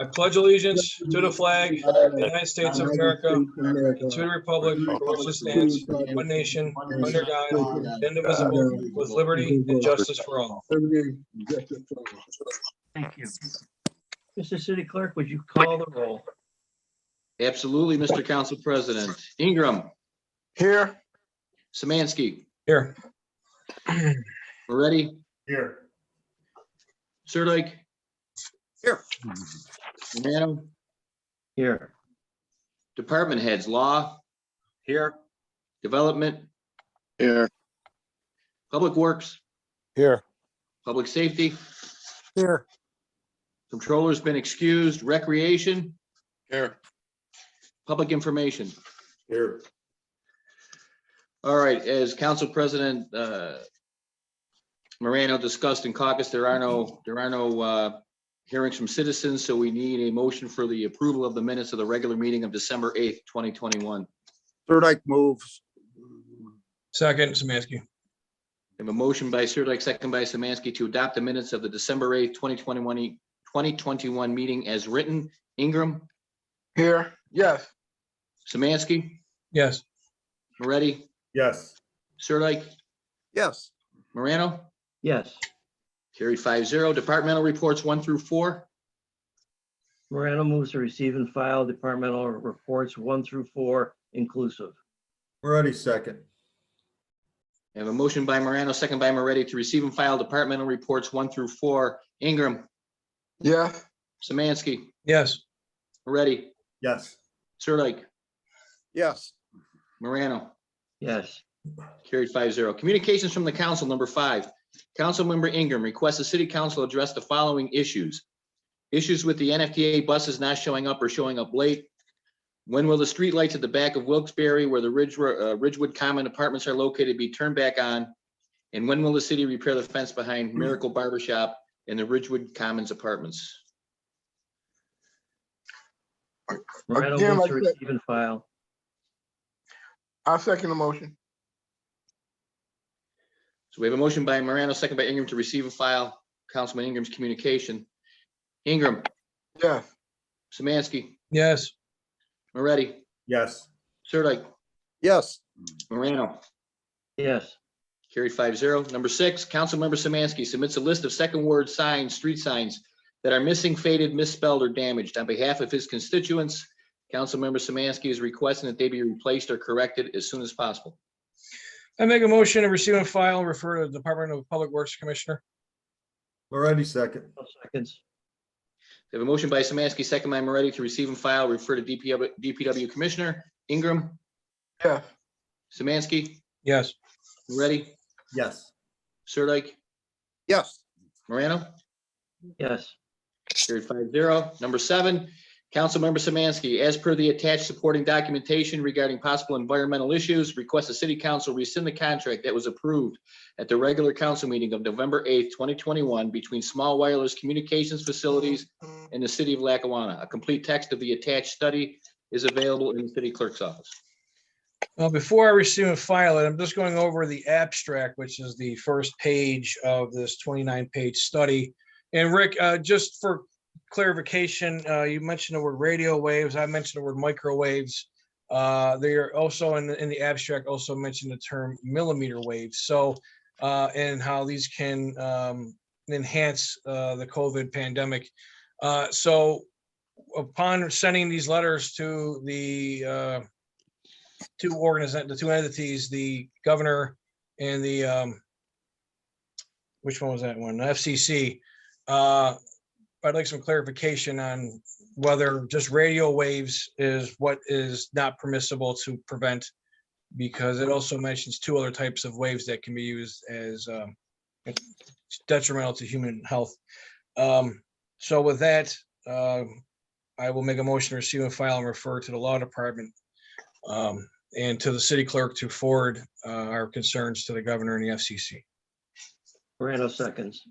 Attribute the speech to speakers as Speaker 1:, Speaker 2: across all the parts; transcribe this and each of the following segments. Speaker 1: I pledge allegiance to the flag of the United States of America, and to the republic for which it stands, one nation, under God, indivisible, with liberty and justice for all.
Speaker 2: Thank you. Mr. City Clerk, would you call the roll?
Speaker 3: Absolutely, Mr. Council President. Ingram,
Speaker 4: Here.
Speaker 3: Samansky,
Speaker 1: Here,
Speaker 3: Moretti,
Speaker 4: Here.
Speaker 3: Sirdike.
Speaker 4: Here.
Speaker 3: Romano,
Speaker 2: Here.
Speaker 3: Department Heads, Law,
Speaker 4: Here.
Speaker 3: Development,
Speaker 4: Here.
Speaker 3: Public Works,
Speaker 4: Here.
Speaker 3: Public Safety,
Speaker 4: Here.
Speaker 3: Controller's been excused, Recreation,
Speaker 4: Here.
Speaker 3: Public Information.
Speaker 4: Here.
Speaker 3: All right, as Council President uh, Morano discussed in caucus, there are no, there are no uh, hearings from citizens, so we need a motion for the approval of the minutes of the regular meeting of December 8th, 2021.
Speaker 4: Sirdike moves.
Speaker 1: second, Samansky.
Speaker 3: We have a motion by Sirdike, second by Samansky, to adopt the minutes of the December 8th, 2021, e- 2021 meeting as written. Ingram,
Speaker 4: Here. Yes.
Speaker 3: Samansky,
Speaker 1: Yes,
Speaker 3: Moretti,
Speaker 4: Yes.
Speaker 3: Sirdike,
Speaker 4: Yes.
Speaker 3: Morano,
Speaker 2: Yes.
Speaker 3: carried five zero. Departmental reports one through four.
Speaker 2: Morano moves to receive and file departmental reports one through four inclusive.
Speaker 4: Moretti second.
Speaker 3: I have a motion by Morano, second by Moretti, to receive and file departmental reports one through four. Ingram,
Speaker 4: Yeah.
Speaker 3: Samansky,
Speaker 1: yes,
Speaker 3: Moretti,
Speaker 4: Yes.
Speaker 3: Sirdike,
Speaker 4: Yes.
Speaker 3: Morano.
Speaker 2: Yes.
Speaker 3: Carried five zero. Communications from the council, number five. Councilmember Ingram requests the city council address the following issues. Issues with the NFTA buses not showing up or showing up late. When will the streetlights at the back of Wilkes-Barre where the Ridge, uh, Ridgewood Common apartments are located be turned back on? And when will the city repair the fence behind Miracle Barber Shop and the Ridgewood Commons apartments?
Speaker 2: Morano
Speaker 5: Again,
Speaker 2: moves to
Speaker 5: like that.
Speaker 2: receive and file.
Speaker 5: I second the motion.
Speaker 3: So we have a motion by Morano, second by Ingram to receive and file Councilman Ingram's communication. Ingram,
Speaker 5: Yes,
Speaker 3: Samansky,
Speaker 1: yes,
Speaker 3: Moretti,
Speaker 4: Yes.
Speaker 3: Sirdike,
Speaker 4: Yes.
Speaker 3: Morano,
Speaker 2: Yes.
Speaker 3: carried five zero. Number six, Councilmember Samansky submits a list of second word signs, street signs that are missing, faded, misspelled, or damaged on behalf of his constituents. Councilmember Samansky is requesting that they be replaced or corrected as soon as possible.
Speaker 1: I make a motion to receive and file, and refer to the Department of Public Works Commissioner.
Speaker 4: Moretti second.
Speaker 2: No seconds.
Speaker 3: We have a motion by Samansky, second by Moretti to receive and file, refer to DPW DPW Commissioner. Ingram,
Speaker 5: yes,
Speaker 3: Samansky,
Speaker 1: Yes,
Speaker 3: Moretti,
Speaker 4: Yes.
Speaker 3: Sirdike,
Speaker 4: Yes.
Speaker 3: Morano?
Speaker 2: Yes.
Speaker 3: Carried five zero. Number seven, Councilmember Samansky, as per the attached supporting documentation regarding possible environmental issues, requests the city council rescind the contract that was approved at the regular council meeting of November eighth, twenty twenty-one between Small Wireless Communications Facilities and the city of Lackawanna. A complete text of the attached study is available in the city clerk's office.
Speaker 1: Well, before I receive and file it, I'm just going over the abstract, which is the first page of this twenty-nine page study. And Rick, uh, just for clarification, uh, you mentioned the word radio waves. I mentioned the word microwaves. Uh, they are also in, the- in the abstract also mentioned the term millimeter waves. So, uh, and how these can, um, enhance, uh, the COVID pandemic. Uh, so upon sending these letters to the, uh, two organization, the two entities, the governor and the, um, which one was that one? The FCC. Uh, I'd like some clarification on whether just radio waves is what is not permissible to prevent. Because it also mentions two other types of waves that can be used as, um, detrimental to human health. Um, so with that, um, I will make a motion to receive and file and refer to the law department. Um, and to the city clerk to forward uh, our concerns to the governor and the FCC.
Speaker 2: Morano seconds.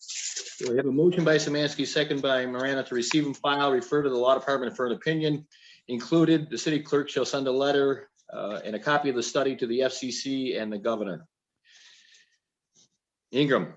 Speaker 3: So we have a motion by Samansky, second by Morano to receive and file, refer to the law department for an opinion. Included, the city clerk shall send a letter uh, and a copy of the study to the FCC and the governor. Ingram,